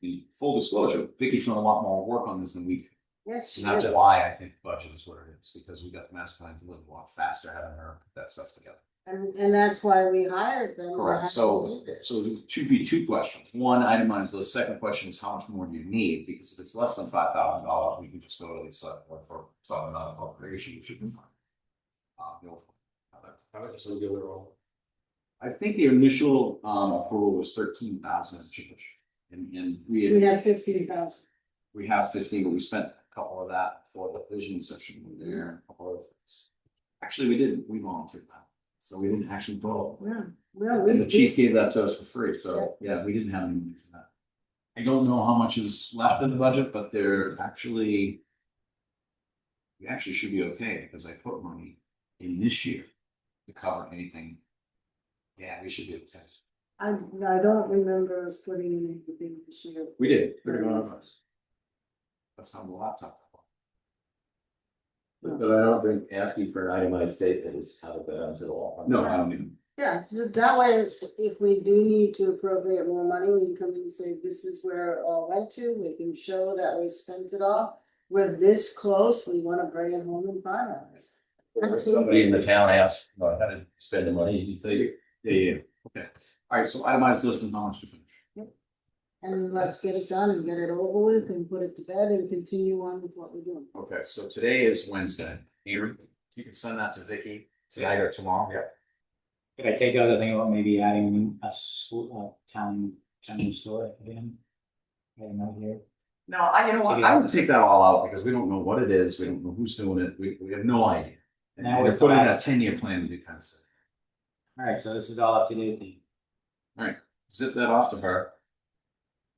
the full disclosure, Vicky's done a lot more work on this than we, did. Yes, and that's yes. why I think budget is where it is, because we got the master plan to live a lot faster having her put that stuff together. and, and that's why we hired them. to Correct, have so, them do this. so there should be two questions, one itemized, the second question is how much more do you need, because if it's less than five thousand dollars, we can just go to the select board for some non-appropriation, you should be fine. Uh, you'll- I would just leave it all. I think the initial, um, approval was thirteen thousand and change, and, and we We had, had fifteen thousand. we have fifteen, but we spent a couple of that for the vision session we were there, and a couple of things. Actually, we didn't, we volunteered that, so we didn't actually vote. Yeah. Well, Oh, we, And the chief we, gave that to us for free, so, yeah, we didn't have any money for that. I don't know how much is left in the budget, but they're actually. We actually should be okay, because I put money in this year to cover anything. Yeah, we should be okay. I, I don't remember us putting in anything this year. We did. Pretty good on That's on the laptop. But I don't think asking for an itemized statement is how to balance it all. No, I don't mean, Yeah, so that way, if- if we do need to appropriate more money, we can come in and say, this is where it all went to, we can show that we spent it all. We're this close, we wanna bring it home and finalize. If Somebody in the town asks, well, how to spend the money, you think, yeah, yeah, okay. All right, so itemized list and how much to finish. And let's get it done and get it over with and put it to bed and continue on with what we're doing. Okay, so today is Wednesday. Here, you can send that to Vicky today or tomorrow. Yeah. Could I take the other thing about maybe adding a school, a town, town store again? I don't know here. No, I, you know what, Take it I out. would take that all out because we don't know what it is, we don't know who's doing it, we, we have no idea. And Now we're it's the putting in a last- ten-year plan to do kind of stuff. All right, so this is all up to date then. Zip that off to her.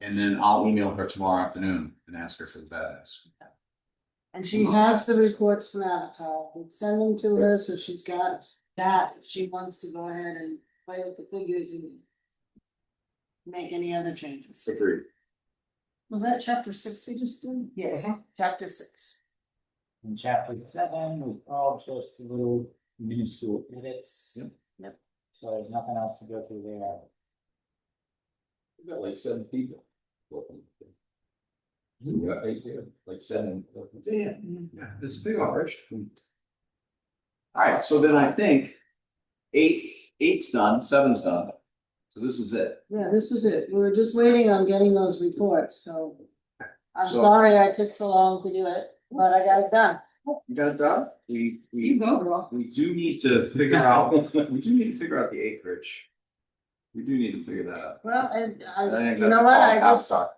And then I'll email her tomorrow afternoon and ask her for the badass. And she has the reports from Avatar, we send them to her, so she's got that, if she wants to go ahead and play with the figures and. Make any other changes. Agreed. Was that chapter six we just did? Uh-huh. Yes, chapter six. And chapter seven was all just little minuscule edits. Yep. Yep. So there's nothing else to go through there. you got like seven people. working. You got eight there, like seven. Yeah, yeah, this is a big operation. All right, so then I think eight, eight's done, seven's done. So this is it. Yeah, this was it, we were just waiting on getting those reports, so. I'm So- sorry I took so long to do it, but I got it done. You got it done? We, we, go, girl. we do need to figure out, we do need to figure out the acreage. We do need to figure that out. Well, and I, I think you that's know a what, I problem. I'm just, sorry.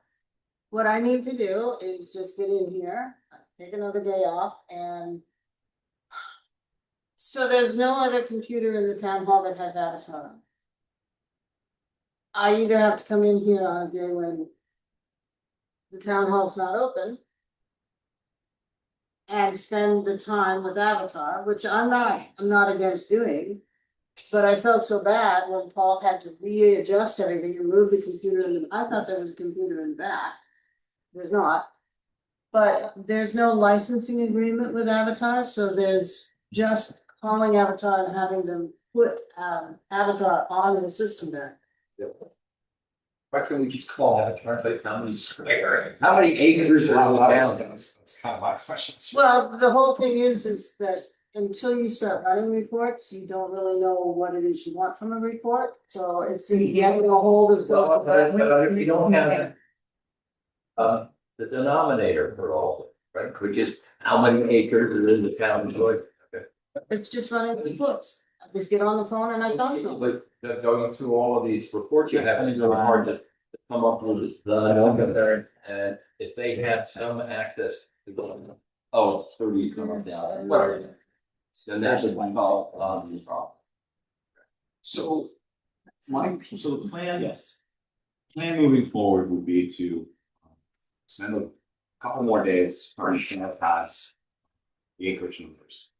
what I need to do is just get in here, take another day off and. So there's no other computer in the town hall that has Avatar. I either have to come in here on a day when. The town hall's not open. And spend the time with Avatar, which I'm not, I'm not against doing. But I felt so bad when Paul had to readjust everything and move the computer in, the- I thought there was a computer in the back. There's not. But there's no licensing agreement with Avatar, so there's just calling Avatar and having them put um Avatar on the system there. Why can't we just call out a turn, like how many square, how many acres are allowed? That's kind of my question. Well, the whole thing is, is that until you start running reports, you don't really know what it is you want from a report, so it's the getting a hold of. Mm-hmm. Well, but- but if you don't have. Uh, the denominator for all, right, which is how many acres are in the town, so. It's just running reports. I just get on the phone and I talk to them. But but going through all of these reports, you have, it's really hard to to come up with the number. And if they have some access to going, oh, thirty, come up down, whatever. Then that's one call, um, problem. So, my, so the plan, Yes. plan moving forward would be to um, spend a couple more days furnishing that pass. The acreage numbers.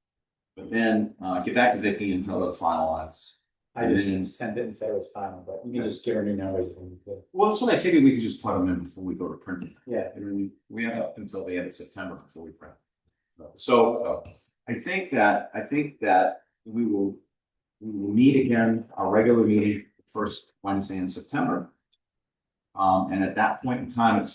But then, uh, get back to Vicky and tell her to finalize. I just sent it and said it was final, but you can just give her new numbers. when you do. Well, that's what I figured we could just plug them in before we go to print. Yeah. I mean, we have up until the end of September before we print. So uh, I think that, I think that we will, we will meet again, our regular meeting, first Wednesday in September. Um, and at that point in time, it's